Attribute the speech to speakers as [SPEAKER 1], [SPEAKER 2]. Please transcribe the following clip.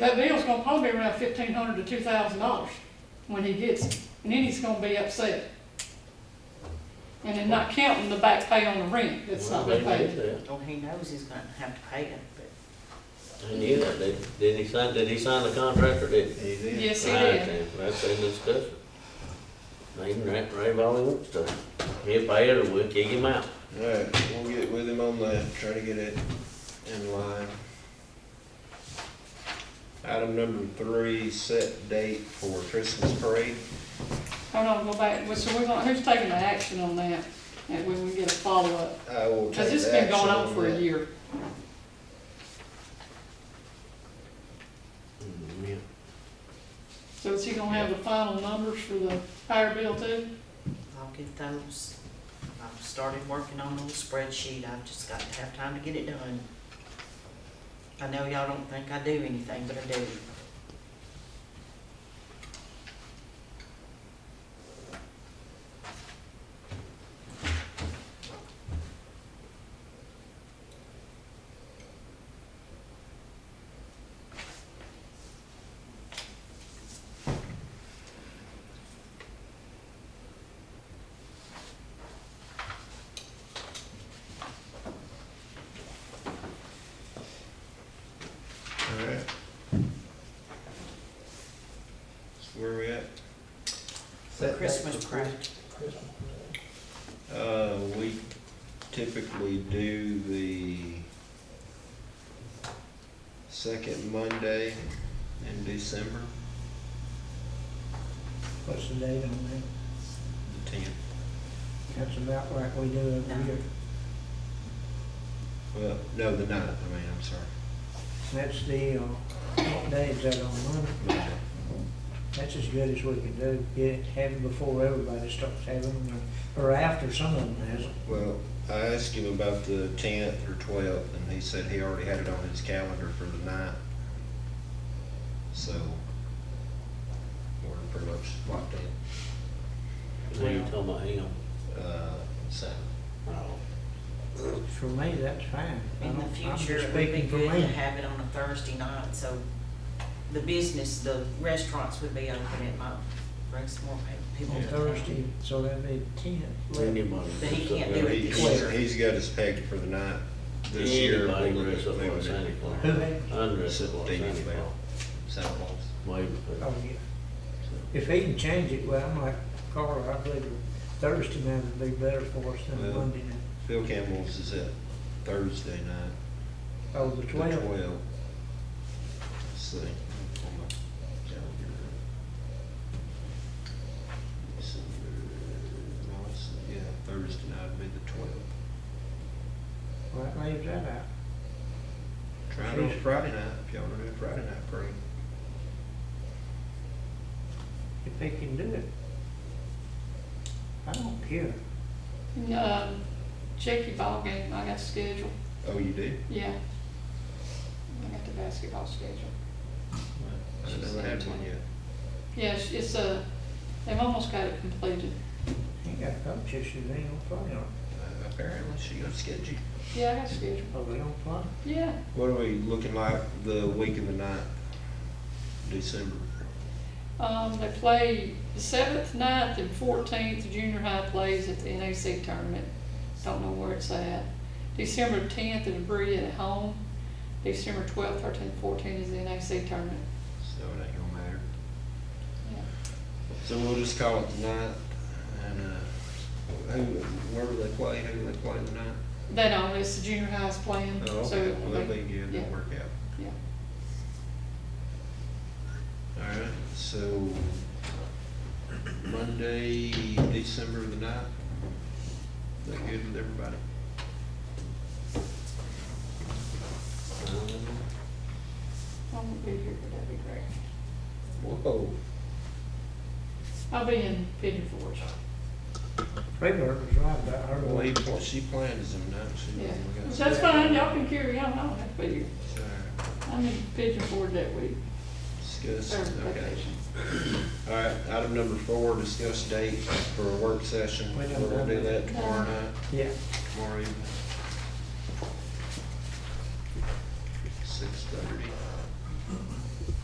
[SPEAKER 1] That bill's gonna probably be around fifteen hundred to two thousand dollars when he gets it, and then he's gonna be upset. And then not counting the back pay on the rent, that's
[SPEAKER 2] Well,
[SPEAKER 1] not been
[SPEAKER 2] they did
[SPEAKER 1] paid.
[SPEAKER 2] that.
[SPEAKER 3] Well, he knows he's gonna have to pay it, but
[SPEAKER 2] They knew that. Did, did he sign, did he sign the contract or did? he?
[SPEAKER 1] Yes, he
[SPEAKER 2] I
[SPEAKER 1] did.
[SPEAKER 2] understand. That's in discussion. They can rant, rave all he wants to. He'll pay it or we'll kick him out.
[SPEAKER 4] Alright, we'll get with him on that, try to get it in line. Item number three, set date for Christmas parade.
[SPEAKER 1] Hold on, go back, Well, so we're gonna, who's taking the action on that? And we will get a follow-up,
[SPEAKER 4] I will take
[SPEAKER 1] cause
[SPEAKER 4] action
[SPEAKER 1] it's been going on
[SPEAKER 4] on
[SPEAKER 1] for a
[SPEAKER 4] that.
[SPEAKER 1] year.
[SPEAKER 2] Yeah.
[SPEAKER 1] So is he gonna have the final numbers for the fire bill too?
[SPEAKER 3] I'll get those. I've started working on the little spreadsheet, I've just got to have time to get it done. I know y'all don't think I do anything, but I do.
[SPEAKER 4] Alright. So where we at?
[SPEAKER 3] Christmas parade.
[SPEAKER 4] Uh, we typically do the second Monday in December,
[SPEAKER 5] What's the date on that?
[SPEAKER 4] the tenth.
[SPEAKER 5] That's about like we do every year.
[SPEAKER 4] Well, no, the ninth, I mean, I'm sorry.
[SPEAKER 5] That's the, uh, what day is that on Monday?
[SPEAKER 4] Monday.
[SPEAKER 5] That's as good as we can do. Get it, have it before everybody starts having them, or or after some of them has them.
[SPEAKER 4] Well, I asked him about the tenth or twelfth, and he said he already had it on his calendar for the ninth. So, we're pretty much locked in.
[SPEAKER 2] Now you're talking about him.
[SPEAKER 4] Uh, so,
[SPEAKER 2] Oh.
[SPEAKER 5] For me, that's fine. I
[SPEAKER 3] In the
[SPEAKER 5] don't- I'm
[SPEAKER 3] future,
[SPEAKER 5] just
[SPEAKER 3] it would be
[SPEAKER 5] speaking for
[SPEAKER 3] good to
[SPEAKER 5] me.
[SPEAKER 3] have it on a Thursday night, so the business, the restaurants would be open, it might bring some more pe- people
[SPEAKER 5] On
[SPEAKER 3] to
[SPEAKER 5] Thursday,
[SPEAKER 3] town.
[SPEAKER 5] so that'd be ten.
[SPEAKER 2] Anybody.
[SPEAKER 3] But he can't do it
[SPEAKER 4] he,
[SPEAKER 3] this
[SPEAKER 4] he's,
[SPEAKER 3] year.
[SPEAKER 4] he's got us pegged for the ninth this year.
[SPEAKER 2] Anybody
[SPEAKER 4] we'll
[SPEAKER 2] can
[SPEAKER 4] look
[SPEAKER 2] dress
[SPEAKER 4] at
[SPEAKER 2] up like
[SPEAKER 4] moving
[SPEAKER 2] Santa
[SPEAKER 4] it.
[SPEAKER 2] Claus.
[SPEAKER 5] Who they?
[SPEAKER 2] Undress up like
[SPEAKER 4] Steve,
[SPEAKER 2] Santa Claus.
[SPEAKER 4] Santa Claus.
[SPEAKER 2] Wave.
[SPEAKER 5] Oh, yeah. If he can change it, well, I'm like Carla, I believe Thursday night would be better for us than
[SPEAKER 4] Well-
[SPEAKER 5] Monday night.
[SPEAKER 4] Phil Campbell's is at Thursday night,
[SPEAKER 5] Oh, the
[SPEAKER 4] the
[SPEAKER 5] twelfth.
[SPEAKER 4] twelfth. Let's see. on my calendar. December, no, it's, yeah, Thursday night would be the twelfth.
[SPEAKER 5] Well, that leaves that out.
[SPEAKER 4] Try it on Friday night, if y'all wanna do Friday night parade.
[SPEAKER 5] if they can do it. I don't care.
[SPEAKER 1] And, um, check your ball game, I got scheduled,
[SPEAKER 4] Oh, you do?
[SPEAKER 1] yeah. I got the basketball scheduled.
[SPEAKER 4] I
[SPEAKER 1] She
[SPEAKER 4] never
[SPEAKER 1] said
[SPEAKER 4] had one
[SPEAKER 1] twenty.
[SPEAKER 4] yet.
[SPEAKER 1] Yes, it's a, they've almost got it completed.
[SPEAKER 5] He got coach issues, they don't play on.
[SPEAKER 4] Uh, Apparently, she got sketchy.
[SPEAKER 1] Yeah, I got scheduled.
[SPEAKER 5] Oh, they don't play?
[SPEAKER 1] Yeah,
[SPEAKER 4] What are we looking like the week of the ninth, December?
[SPEAKER 1] um, they play the seventh, ninth, and fourteenth, junior high plays at the NAC tournament. Don't know where it's at. December tenth is Bree at home. December twelfth, thirteenth, fourteenth is the NAC tournament.
[SPEAKER 4] So it ain't gonna matter.
[SPEAKER 1] Yeah.
[SPEAKER 4] So we'll just call it the ninth, and, uh, who, where do they play, who do they play the ninth?
[SPEAKER 1] They don't, it's the junior high's playing,
[SPEAKER 4] Oh,
[SPEAKER 1] Mm-hmm. so
[SPEAKER 4] okay,
[SPEAKER 1] it
[SPEAKER 4] well,
[SPEAKER 1] will
[SPEAKER 4] that'll
[SPEAKER 1] be,
[SPEAKER 4] be good,
[SPEAKER 1] yeah.
[SPEAKER 4] that'll work out.
[SPEAKER 1] yeah.
[SPEAKER 4] All right, so Monday, December the ninth, is that good with everybody? Um,
[SPEAKER 1] I won't be here, but that'd be great.
[SPEAKER 4] Whoa.
[SPEAKER 1] I'll be in Pigeon Forge.
[SPEAKER 5] Freeburg was right about her.
[SPEAKER 4] Well, he, pl- she planned as of ninth, she.
[SPEAKER 1] Yeah,
[SPEAKER 4] we got-
[SPEAKER 1] so that's fine, y'all can carry on, I don't have to be here.
[SPEAKER 4] All right,
[SPEAKER 1] I'm in Pigeon Forge that week,
[SPEAKER 4] Discuss,
[SPEAKER 1] or
[SPEAKER 4] okay.
[SPEAKER 1] vacation.
[SPEAKER 4] All right, item number four, discuss date for a work session.
[SPEAKER 5] We
[SPEAKER 4] We're
[SPEAKER 5] don't
[SPEAKER 4] gonna do that
[SPEAKER 1] No.
[SPEAKER 4] tomorrow night,
[SPEAKER 5] Yeah,
[SPEAKER 4] tomorrow evening. Six thirty.